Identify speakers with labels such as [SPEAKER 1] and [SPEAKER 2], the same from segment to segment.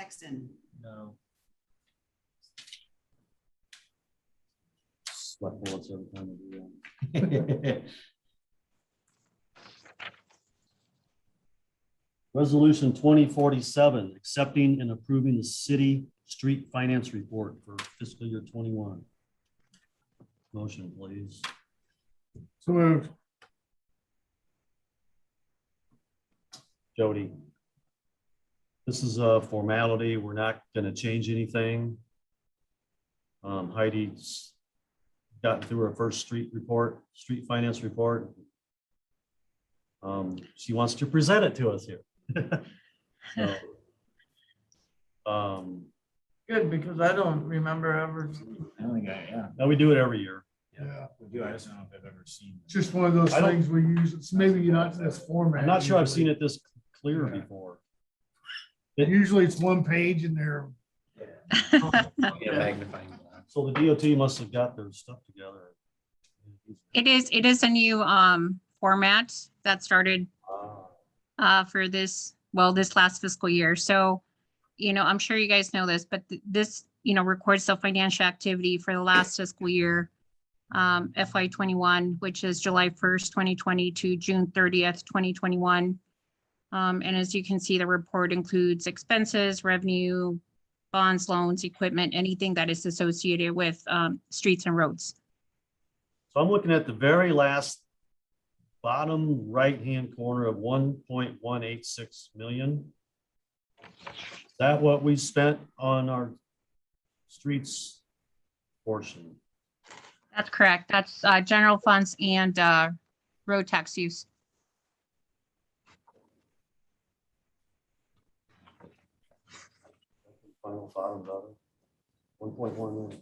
[SPEAKER 1] Sexton,
[SPEAKER 2] No.
[SPEAKER 3] Select boards every time we do that. Resolution twenty forty-seven, accepting and approving the city street finance report for fiscal year twenty-one. Motion, please.
[SPEAKER 4] So moved.
[SPEAKER 3] Jody. This is a formality. We're not gonna change anything. Um, Heidi's gotten through her first street report, street finance report. Um, she wants to present it to us here. So, Um,
[SPEAKER 4] Good, because I don't remember ever.
[SPEAKER 2] I don't think I, yeah.
[SPEAKER 3] now we do it every year.
[SPEAKER 4] Yeah,
[SPEAKER 2] Do I? I don't know if I've ever seen. that.
[SPEAKER 4] just one of those
[SPEAKER 3] I don't-
[SPEAKER 4] things we use, it's maybe not in this format.
[SPEAKER 3] I'm not sure I've seen
[SPEAKER 4] usually.
[SPEAKER 3] it this clear before.
[SPEAKER 4] Usually it's one page and they're,
[SPEAKER 2] Yeah, magnifying. glass.
[SPEAKER 3] So the DOT must have got their stuff together.
[SPEAKER 5] It is, it is a new um format that started
[SPEAKER 3] Ah.
[SPEAKER 5] uh for this, well, this last fiscal year. So, you know, I'm sure you guys know this, but th- this, you know, records the financial activity for the last fiscal year, um FY twenty-one, which is July first, twenty twenty to June thirtieth, twenty twenty-one. Um, and as you can see, the report includes expenses, revenue, bonds, loans, equipment, anything that is associated with um streets and roads.
[SPEAKER 3] So I'm looking at the very last bottom right-hand corner of one point one eight six million. Is that what we spent on our streets portion?
[SPEAKER 5] That's correct. That's uh, general funds and uh, road tax use.
[SPEAKER 3] Final bottom dollar, one point one million.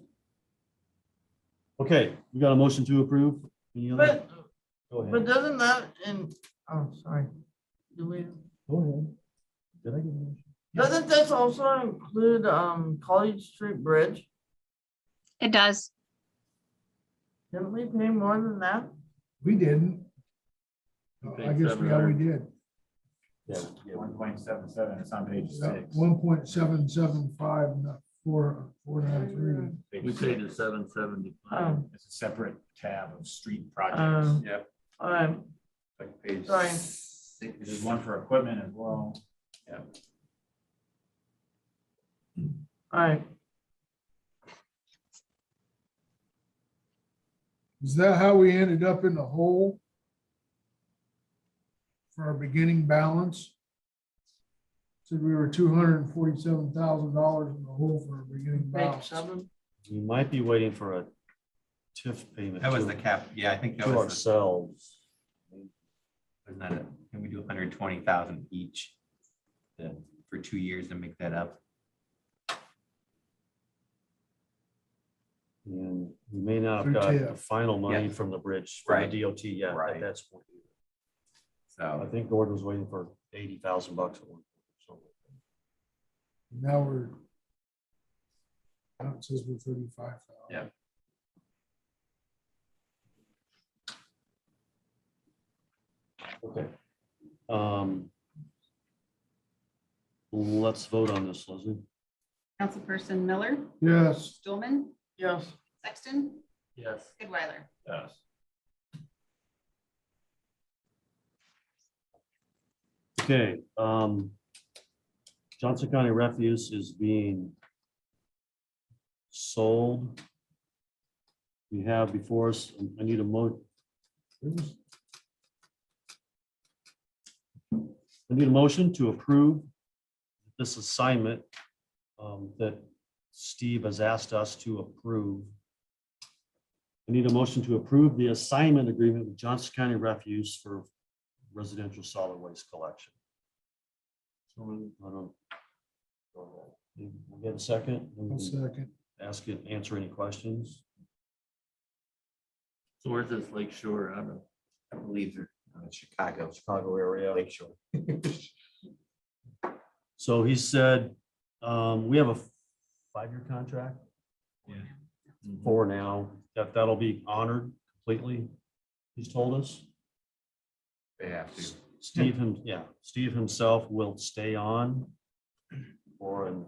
[SPEAKER 3] Okay, we got a motion to approve? Any other-
[SPEAKER 6] But,
[SPEAKER 3] Go
[SPEAKER 6] but
[SPEAKER 3] ahead.
[SPEAKER 6] doesn't that, and, oh, sorry. Do we,
[SPEAKER 3] Go ahead. Did I get a motion?
[SPEAKER 6] doesn't this also include, um, College Street Bridge?
[SPEAKER 5] It does.
[SPEAKER 6] Didn't we pay more than that?
[SPEAKER 4] we didn't.
[SPEAKER 2] Okay,
[SPEAKER 4] I guess we, yeah, we did.
[SPEAKER 3] Yeah, yeah,
[SPEAKER 2] One point seven seven, it's on page six.
[SPEAKER 4] One point seven seven five, not four, four nine three.
[SPEAKER 2] Page
[SPEAKER 7] We paid
[SPEAKER 2] six.
[SPEAKER 7] the seven seventy-five.
[SPEAKER 6] Um,
[SPEAKER 2] It's a separate tab of street
[SPEAKER 6] Oh.
[SPEAKER 2] projects. Yep.
[SPEAKER 6] um,
[SPEAKER 7] Like page
[SPEAKER 6] Sorry.
[SPEAKER 7] six.
[SPEAKER 2] There's one for equipment as well.
[SPEAKER 6] alright,
[SPEAKER 4] Is that how we ended up in the hole? For our beginning balance? Said we were two hundred and forty-seven thousand dollars in the hole for our beginning
[SPEAKER 6] page
[SPEAKER 4] balance.
[SPEAKER 6] seven.
[SPEAKER 3] You might be waiting for a TIF payment.
[SPEAKER 8] That was
[SPEAKER 3] to-
[SPEAKER 8] the cap, yeah, I think that
[SPEAKER 3] To
[SPEAKER 8] was,
[SPEAKER 3] ourselves.
[SPEAKER 8] was not it? Can we do hundred twenty thousand each? uh, For two years and make that up?
[SPEAKER 3] And we may not have
[SPEAKER 4] Through
[SPEAKER 3] got the
[SPEAKER 4] TIF.
[SPEAKER 3] final money
[SPEAKER 8] Yeah.
[SPEAKER 3] from the bridge, from
[SPEAKER 8] Right.
[SPEAKER 3] the DOT yet,
[SPEAKER 8] Right.
[SPEAKER 3] at that point. I
[SPEAKER 8] So,
[SPEAKER 3] think Gordon was waiting for eighty thousand bucks. at one point, so.
[SPEAKER 4] Now we're. Now it says we're thirty-five thousand.
[SPEAKER 8] Yeah.
[SPEAKER 3] Okay. Um, Let's vote on this, Leslie.
[SPEAKER 1] Councilperson Miller,
[SPEAKER 4] Yes,
[SPEAKER 1] Stulman,
[SPEAKER 6] Yes,
[SPEAKER 1] Sexton,
[SPEAKER 7] Yes.
[SPEAKER 1] Goodweiler.
[SPEAKER 2] Yes.
[SPEAKER 3] Okay, um, Johnson County Refuse is being sold. We have before us, I need a mo. I need a motion to approve this assignment um, that Steve has asked us to approve. I need a motion to approve the assignment agreement with Johnson County Refuse for residential solid waste collection. I don't. We Get a second, Then
[SPEAKER 4] one
[SPEAKER 3] we can
[SPEAKER 4] second.
[SPEAKER 3] ask it, answer any questions.
[SPEAKER 7] So where's this Lake Shore? I don't know.
[SPEAKER 8] I believe they're uh, Chicago,
[SPEAKER 3] Chicago area.
[SPEAKER 8] Lake Shore.
[SPEAKER 3] So he said, um, we have a five-year contract.
[SPEAKER 2] Yeah.
[SPEAKER 8] mm-hmm.
[SPEAKER 3] For now, that, that'll be honored completely, he's told us.
[SPEAKER 8] They have to.
[SPEAKER 3] Steve him, yeah, Steve himself will stay on for an